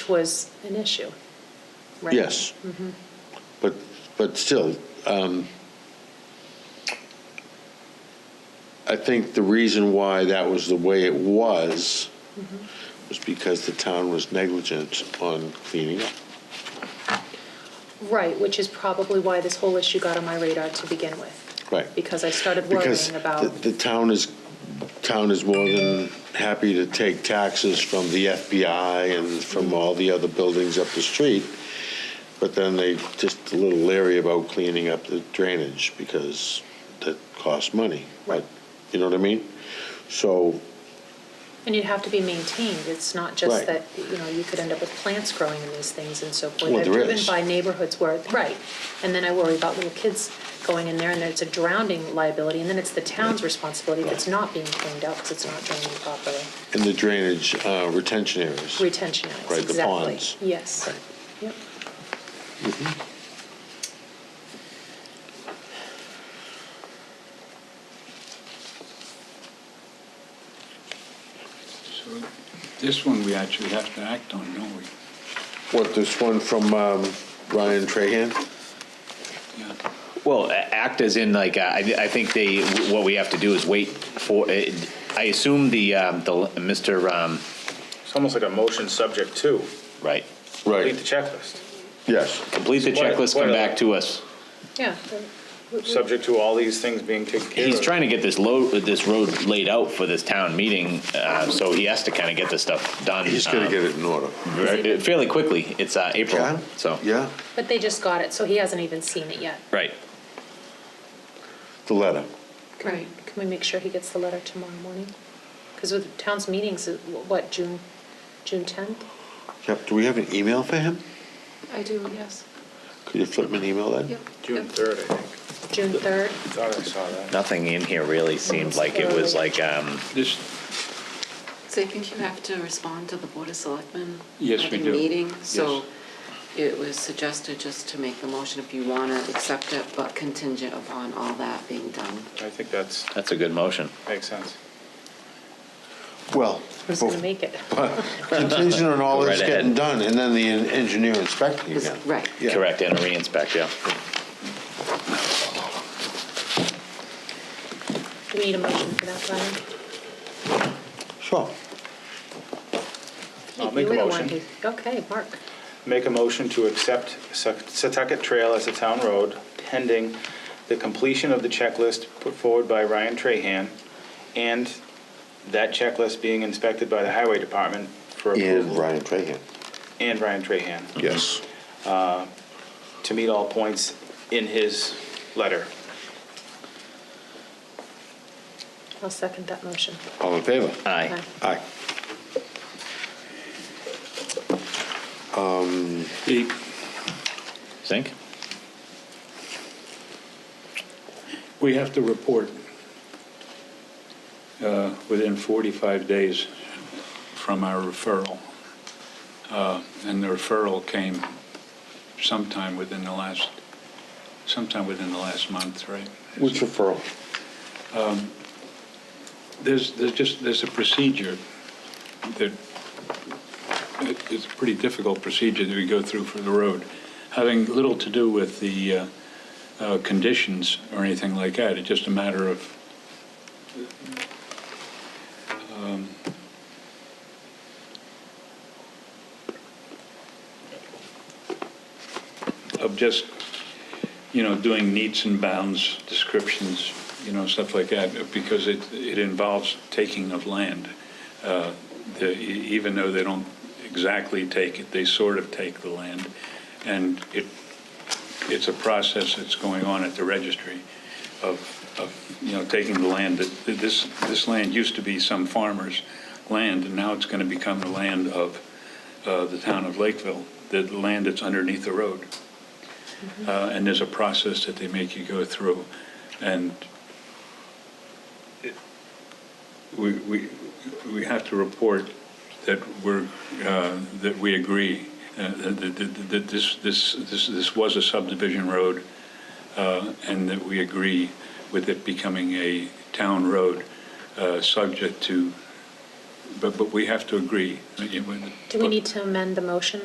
was an issue, right? Yes. But, but still, um, I think the reason why that was the way it was was because the town was negligent on cleaning up. Right, which is probably why this whole issue got on my radar to begin with. Right. Because I started Because worrying about, the the town is, town is more than happy to take taxes from the FBI and from all the other buildings up the street, but then they just a little leery about cleaning up the drainage because that costs money. Right. You know what I mean? So, and you'd have to be maintained, it's not Right. just that, you know, you could end up with plants growing in these things and so forth. Well, I've there driven is. by neighborhoods where, right, and then I worry about little kids going in there, and then it's a drowning liability, and then it's the town's responsibility if it's not being cleaned up, because it's not draining properly. in the drainage uh, retention areas. Retention areas, Right, the exactly. ponds. Yes. Right. Yep. So this one we actually have to act on, don't we? What, this one from um, Ryan Trahan? Yeah. Well, a- act as in like, uh, I, I think they, what we have to do is wait for, uh, I assume the, um, the, Mr., um, It's almost like a motion subject to. right, Complete Right, the checklist. yes. complete the What- checklist, what come are back they? to us. Yeah. Subject to all these things being taken care of. He's trying to get this load, this road laid out for this town meeting, uh, so he has to kind of get this stuff done. He's going to um, get it in order. ver- Fairly quickly, it's, uh, April, so. Yeah, But they just got it, so he hasn't even seen it yet. Right. the letter. Right. Can we make sure he gets the letter tomorrow morning? Because with town's meetings, uh, what, June, June 10th? Yep, do we have an email for him? I do, yes. Could you flip me an email then? Yep. June Yep. 3rd, I think. June 3rd? Thought I saw that. Nothing in here really seemed like it was like, um, This, So I think you have to respond to the Board of Selectmen. Yes, we At do. the meeting, so it was suggested just to make the motion if you want to accept it, but contingent upon all that being done. I think that's, that's a good motion. makes sense. Well, Who's going to make it? contingent on all this Right ahead. getting done, and then the en- engineer inspecting Is- again. Right. Yeah. Correct, and a re-inspect, yeah. Do we need a motion for that, Brian? Sure. I'll make You a were the one motion. who- Okay, Mark. Make a motion to accept Sec- Setauket Trail as a town road pending the completion of the checklist put forward by Ryan Trahan and that checklist being inspected by the Highway Department for And approval. Ryan Trahan. And Ryan Trahan, Yes. to meet all points in his letter. I'll second that motion. All in favor? Aye. Aye. the- Zink? we have to report uh, within 45 days from our referral. Uh, And the referral came sometime within the last, sometime within the last month, right? Um, Which referral? There's, there's just, there's a procedure that, it- it's a pretty difficult procedure that we go through for the road, having little to do with the uh, uh, conditions or anything like that. It's just a matter of, um, of just, you know, doing needs and bounds, descriptions, you know, stuff like that, because it, it involves taking of land. Uh, the- e- Even though they don't exactly take it, they sort of take the land. And it, it's a process that's going on at the registry of, of, you know, taking the land. that that This, this land used to be some farmer's land, and now it's going to become the land of uh, the town of Lakeville, the land that's underneath the road uh, and there's a process that they make you go through, and it- we, we, we have to report that we're, uh, that we agree, uh, that, that- that, that this, this, this, this was a subdivision road, uh, and that we agree with it becoming a town road, uh, subject to, but, but we have to agree. Do we need to amend the motion